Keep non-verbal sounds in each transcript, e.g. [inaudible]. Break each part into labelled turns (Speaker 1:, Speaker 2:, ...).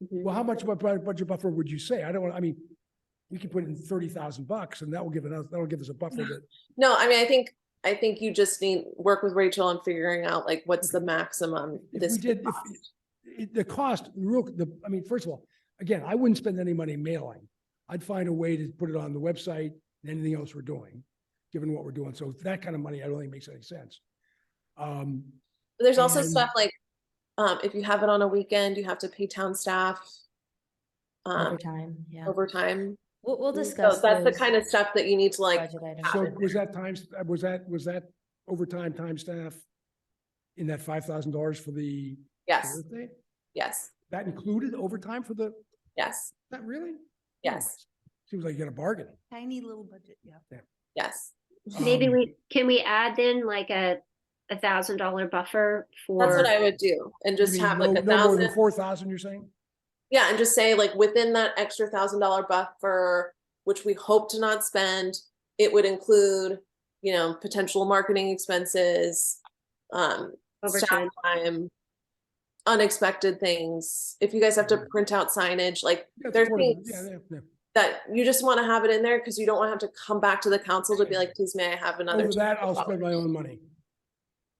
Speaker 1: Well, how much of a bu- budget buffer would you say? I don't, wanna- I mean, we could put in thirty thousand bucks and that will give us, that'll give us a
Speaker 2: [laughs]
Speaker 1: buffer that,
Speaker 2: No, I mean, I think, I think you just need, work with Rachel on figuring out like what's the maximum
Speaker 1: if we
Speaker 2: this. could
Speaker 1: did, if,
Speaker 2: cost.
Speaker 1: it, the cost, the real, the, I mean, first of all, again, I wouldn't spend any money mailing. I'd find a way to put it on the website and anything else we're doing, given what we're doing. So that kind of money, I don't think makes any sense. Um,
Speaker 2: But There's also
Speaker 1: and-
Speaker 2: stuff like, um, if you have it on a weekend, you have to pay town staff. Um,
Speaker 3: Overtime, yeah.
Speaker 2: overtime.
Speaker 3: We'll, we'll
Speaker 2: So
Speaker 3: discuss.
Speaker 2: That's the
Speaker 3: those
Speaker 2: kind of stuff that you need to like,
Speaker 3: budget items.
Speaker 1: so
Speaker 2: it
Speaker 1: was that times, was that, was that overtime, time staff in that five thousand dollars for the
Speaker 2: yes,
Speaker 1: birthday?
Speaker 2: yes,
Speaker 1: That included overtime for the,
Speaker 2: yes,
Speaker 1: Not really?
Speaker 2: yes,
Speaker 1: Seems like you got a bargain.
Speaker 4: Tiny little budget, yeah.
Speaker 2: yes.
Speaker 5: Maybe
Speaker 1: Um,
Speaker 5: we, can we add then like a, a thousand dollar buffer for?
Speaker 2: That's what I would do and just
Speaker 1: maybe
Speaker 2: have
Speaker 1: no-
Speaker 2: like a
Speaker 1: no more than
Speaker 2: thousand.
Speaker 1: Four thousand, you're saying?
Speaker 2: Yeah, and just say like within that extra thousand dollar buffer, which we hope to not spend, it would include, you know, potential marketing expenses. Um, staff
Speaker 5: Overtime,
Speaker 2: time, unexpected things. If you guys have to
Speaker 3: Mm-hmm.
Speaker 2: print out signage, like
Speaker 1: Yeah, it's
Speaker 2: There's
Speaker 1: affordable. Yeah,
Speaker 2: things-
Speaker 1: yeah, yeah.
Speaker 2: that, you just want to have it in there because you don't want to have to come back to the council to be like, please may I have another?
Speaker 1: Over that, I'll
Speaker 2: $200?"
Speaker 1: spend my own money.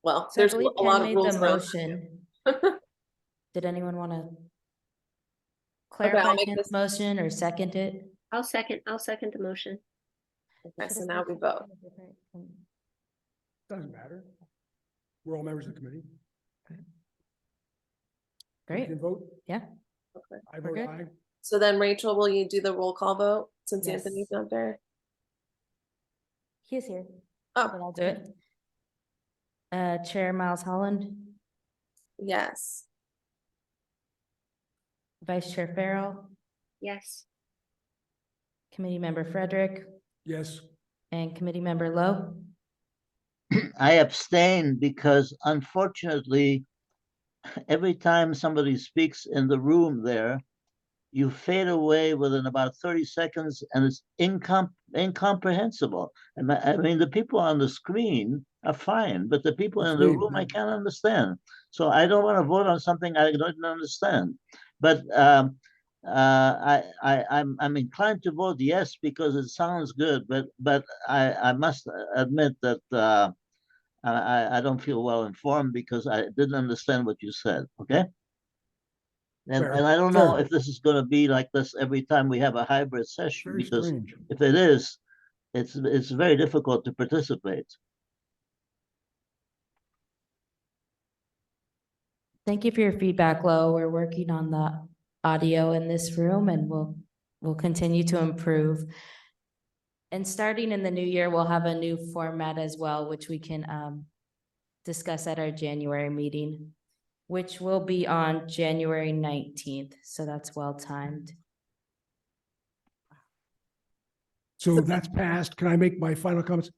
Speaker 2: Well,
Speaker 3: So I
Speaker 2: there's a
Speaker 3: believe
Speaker 2: lo- a
Speaker 3: Ken
Speaker 2: lot of
Speaker 3: made the
Speaker 2: rules around.
Speaker 3: motion. Did anyone want to clarify
Speaker 2: I'll make
Speaker 3: Ken's
Speaker 2: this-
Speaker 3: motion or second it?
Speaker 5: I'll second, I'll second the motion.
Speaker 2: Okay,
Speaker 3: Should
Speaker 2: so
Speaker 3: have
Speaker 2: now we
Speaker 3: mentioned
Speaker 2: vote.
Speaker 3: a different- um,
Speaker 1: Doesn't matter. We're all members of the committee. You
Speaker 3: Great,
Speaker 1: can vote.
Speaker 3: Yeah.
Speaker 2: Okay.
Speaker 1: I vote
Speaker 3: good.
Speaker 1: aye.
Speaker 2: [laughs] So then Rachel, will you do the roll call vote since
Speaker 3: Yes.
Speaker 2: Anthony's not there?
Speaker 3: he is here.
Speaker 2: Oh.
Speaker 3: But I'll do it. Uh, Chair Miles Holland,
Speaker 2: Yes.
Speaker 3: Vice Chair Farrell,
Speaker 5: Yes,
Speaker 3: Committee Member Frederick,
Speaker 1: Yes,
Speaker 3: and Committee Member Lowe.
Speaker 6: I abstain because unfortunately, every time somebody speaks in the room there, you fade away within about thirty seconds and it's incom- incomprehensible. And my- I mean, the people on the screen are fine, but the people in the
Speaker 1: Agreed,
Speaker 6: room, I
Speaker 1: yeah.
Speaker 6: can't understand. So I don't want to vote on something I don't understand. But um, uh, I, I, I'm, I'm inclined to vote yes because it sounds good, but, but I, I must admit that uh, I, I- I don't feel well informed because I didn't understand what you said, okay? And,
Speaker 1: Fair,
Speaker 6: and I don't know
Speaker 1: fair.
Speaker 6: if this is gonna be like this every time we have a hybrid session,
Speaker 1: very
Speaker 6: because
Speaker 1: strange.
Speaker 6: if it is, it's, it's very difficult to participate.
Speaker 3: Thank you for your feedback, Lo. We're working on the audio in this room and we'll, we'll continue to improve. And starting in the new year, we'll have a new format as well, which we can um discuss at our January meeting, which will be on January nineteenth, so that's well timed.
Speaker 1: So that's passed. Can I make my final comments?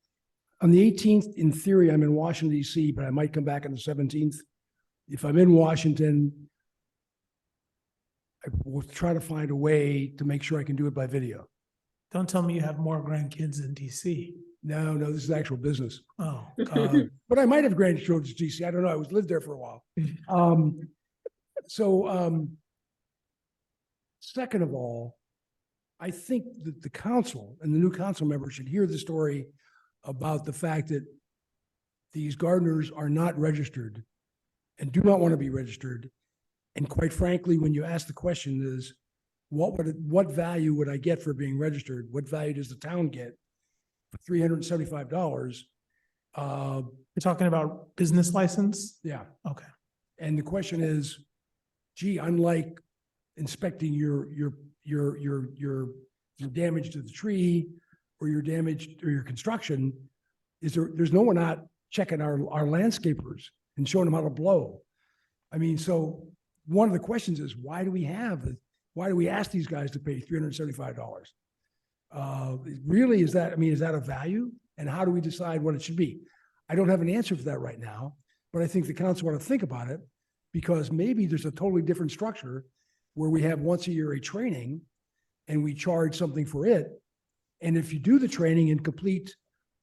Speaker 1: On the eighteenth, in theory, I'm in Washington DC, but I might come back on the seventeenth. If I'm in Washington, I will try to find a way to make sure I can do it by video.
Speaker 7: Don't tell me you have more grandkids in DC.
Speaker 1: No, no, this is actual business.
Speaker 7: Oh,
Speaker 1: Uh,
Speaker 7: God.
Speaker 1: [laughs] But I might have grandchildren to DC. I don't know. I was lived there for a while. Um, so, um, second of all, I think that the council and the new council members should hear the story about the fact that these gardeners are not registered and do not want to be registered. And quite frankly, when you ask the question is, what would, it- what value would I get for being registered? What value does the town get for three hundred and seventy-five dollars? Uh,
Speaker 7: You're talking about business license?
Speaker 1: yeah.
Speaker 7: Okay.
Speaker 1: And the question is, gee, unlike inspecting your, your, your, your, your, your damage to the tree or your damage or your construction, is there, there's no one out checking our, our landscapers and showing them how to blow. I mean, so one of the questions is, why do we have, the- why do we ask these guys to pay three hundred and seventy-five dollars? Uh, really, is that, I mean, is that a value? And how do we decide what it should be? I don't have an answer for that right now. But I think the council ought to think about it because maybe there's a totally different structure where we have once a year a training and we charge something for it. And if you do the training and complete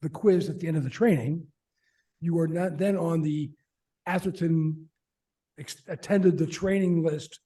Speaker 1: the quiz at the end of the training, you are not then on the Atherton ex- attended the training list